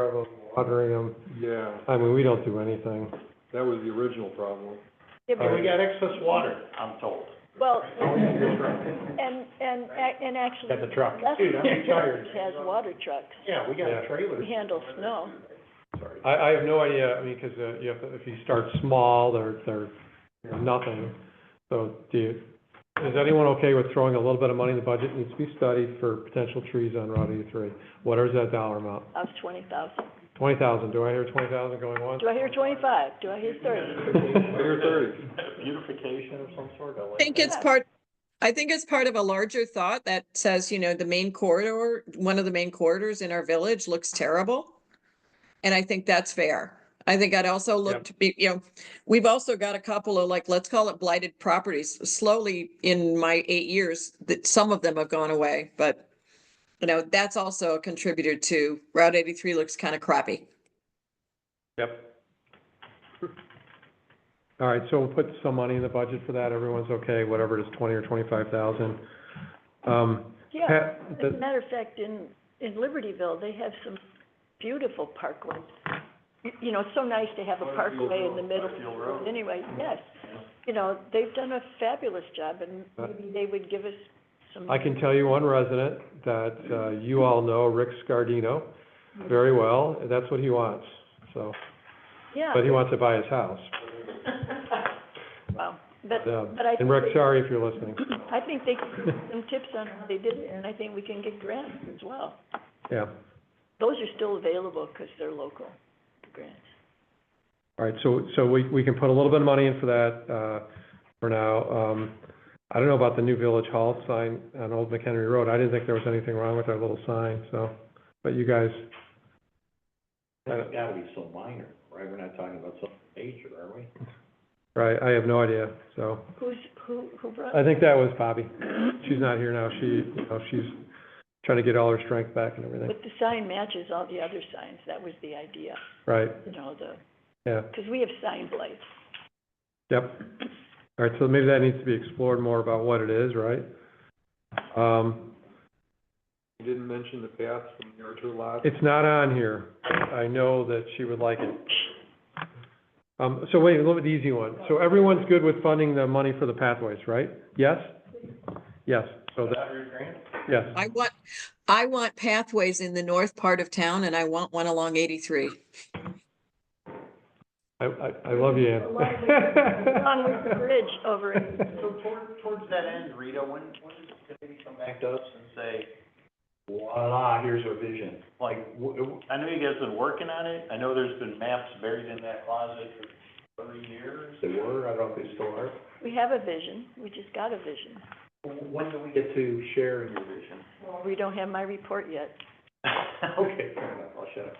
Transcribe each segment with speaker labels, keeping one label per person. Speaker 1: of them, watering them.
Speaker 2: Yeah,
Speaker 1: I mean, we don't do anything.
Speaker 2: that was the original problem.
Speaker 3: Yeah,
Speaker 1: Uh,
Speaker 3: but-
Speaker 4: We got excess water, I'm told.
Speaker 3: Well, and, and, ac- and actually,
Speaker 1: Got the truck.
Speaker 4: Dude, I'm
Speaker 3: Lester
Speaker 4: tired.
Speaker 3: has water trucks,
Speaker 4: Yeah, we got
Speaker 1: Yeah.
Speaker 4: trailers.
Speaker 3: we handle snow.
Speaker 4: Sorry.
Speaker 1: I, I have no idea, I mean, because you have to, if you start small, they're, they're nothing. So do you, is anyone okay with throwing a little bit of money in the budget? Needs to be studied for potential trees on Route eighty-three. What is that dollar amount?
Speaker 3: I was twenty thousand.
Speaker 1: Twenty thousand, do I hear twenty thousand going once?
Speaker 3: Do I hear twenty-five? Do I hear thirty?
Speaker 2: Bigger thirty.
Speaker 4: Beautification of some sort, I like
Speaker 5: I think
Speaker 4: that.
Speaker 5: it's part, I think it's part of a larger thought that says, you know, the main corridor, one of the main corridors in our village looks terrible. And I think that's fair. I think I'd also look to be, you know, we've also got a couple of like, let's call it blighted properties. Slowly in my eight years, that some of them have gone away, but you know, that's also a contributor to Route eighty-three looks kind of crappy.
Speaker 1: Yep. All right, so we'll put some money in the budget for that. Everyone's okay, whatever it is, twenty or twenty-five thousand. Um,
Speaker 3: Yeah,
Speaker 1: Pat,
Speaker 3: as a
Speaker 1: the-
Speaker 3: matter of fact, in, in Libertyville, they have some beautiful parkways. You, you know, it's so nice to have a parkway in the middle. Anyway, yes, you know, they've done a fabulous job, and maybe they would give us some.
Speaker 1: I can tell you one resident that, uh, you all know, Rick Scardino, very well. That's what he wants, so,
Speaker 3: Yeah,
Speaker 1: but he wants to buy his house.
Speaker 3: wow, but,
Speaker 1: Yeah.
Speaker 3: but I.
Speaker 1: And Rick,
Speaker 3: think-
Speaker 1: sorry if you're listening.
Speaker 3: I think they can give some tips on how they did it, and I think we can get grants as well.
Speaker 1: Yeah.
Speaker 3: Those are still available because they're local, the grants.
Speaker 1: All right, so, so we, we can put a little bit of money in for that, uh, for now. Um, I don't know about the new Village Hall sign on Old McHenry Road. I didn't think there was anything wrong with our little sign, so, but you guys,
Speaker 4: That's gotta be so minor, right? We're not talking about some major, are we?
Speaker 1: right, I have no idea, so.
Speaker 3: Who's, who, who brought?
Speaker 1: I think that was Bobby. She's not here now. She, you know, she's trying to get all her strength back and everything.
Speaker 3: But the sign matches all the other signs, that was the idea,
Speaker 1: Right,
Speaker 3: you know, the,
Speaker 1: yeah,
Speaker 3: because we have sign blights.
Speaker 1: yep. All right, so maybe that needs to be explored more about what it is, right? Um,
Speaker 2: You didn't mention the path from the Archer lot.
Speaker 1: it's not on here. I know that she would like it. Um, so wait, a little bit easy one. So everyone's good with funding the money for the pathways, right? Yes? Yes, so that,
Speaker 4: Hundred grand?
Speaker 1: yes.
Speaker 5: I want, I want pathways in the north part of town and I want one along eighty-three.
Speaker 1: I, I, I love you, Ann.
Speaker 3: Along with the bridge over in,
Speaker 4: So toward, towards that end, Rita, when, when is it gonna maybe come back to us and say, voila, here's our vision? Like, w- w- I know you guys been working on it, I know there's been maps buried in that closet for thirty years. They were, I don't know if they still are.
Speaker 3: we have a vision, we just got a vision.
Speaker 4: When do we get to share your vision?
Speaker 3: We don't have my report yet.
Speaker 4: Okay, fair enough, I'll shut up.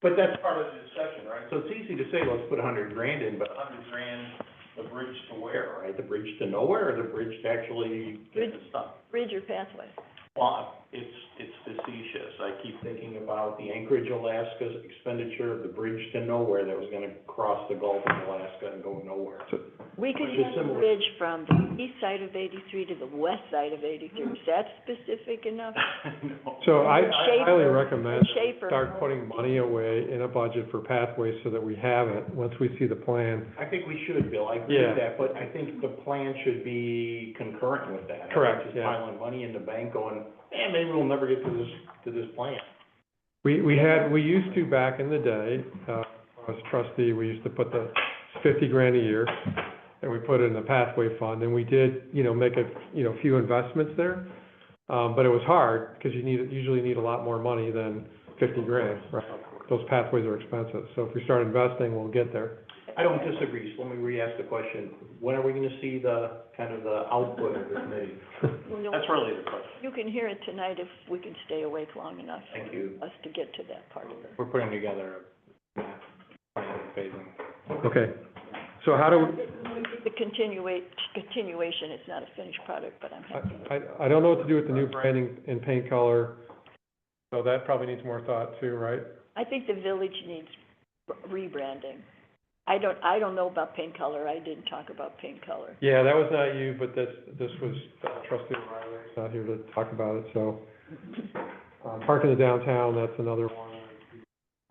Speaker 4: But that's part of the discussion, right? So it's easy to say, let's put a hundred grand in, but a hundred grand, the bridge to where, right? The bridge to nowhere, or the bridge to actually get the stuff?
Speaker 3: Bridge or pathway?
Speaker 4: Well, it's, it's facetious. I keep thinking about the Anchorage, Alaska expenditure of the bridge to nowhere that was gonna cross the Gulf of Alaska and go nowhere.
Speaker 3: We could
Speaker 4: Which is
Speaker 3: have a
Speaker 4: similar.
Speaker 3: bridge from the east side of eighty-three to the west side of eighty-three, is that specific enough?
Speaker 4: No.
Speaker 1: So I
Speaker 3: And
Speaker 1: I highly
Speaker 3: Schaefer-
Speaker 1: recommend
Speaker 3: and Schaefer.
Speaker 1: start putting money away in a budget for pathways so that we have it, once we see the plan.
Speaker 4: I think we should, Bill, I agree
Speaker 1: Yeah.
Speaker 4: with that, but I think the plan should be concurrent with that. I think
Speaker 1: Correct,
Speaker 4: Just
Speaker 1: yeah.
Speaker 4: piling money in the bank going, man, maybe we'll never get to this, to this plan.
Speaker 1: We, we had, we used to back in the day, uh, as trustee, we used to put the fifty grand a year and we put it in the pathway fund and we did, you know, make a, you know, few investments there. Um, but it was hard because you need, usually need a lot more money than fifty grand, right? Those pathways are expensive. So if we start investing, we'll get there.
Speaker 4: I don't disagree, so let me re-ask the question. When are we gonna see the, kind of the output of this meeting?
Speaker 3: We don't-
Speaker 4: That's really the question.
Speaker 3: You can hear it tonight if we can stay awake long enough
Speaker 4: Thank you.
Speaker 3: for us to get to that part of it.
Speaker 4: We're putting together a map, plan phasing.
Speaker 1: Okay. So how do, we-
Speaker 3: The continua- continuation, it's not a finished product, but I'm
Speaker 1: I,
Speaker 3: happy.
Speaker 1: I- I don't know what to do with the new branding and paint color, so that probably needs more thought too, right?
Speaker 3: I think the village needs rebranding. I don't, I don't know about paint color, I didn't talk about paint color.
Speaker 1: Yeah, that was not you, but this, this was uh, trustee uh, Riley's not here to talk about it, so. Um, parking the downtown, that's another one.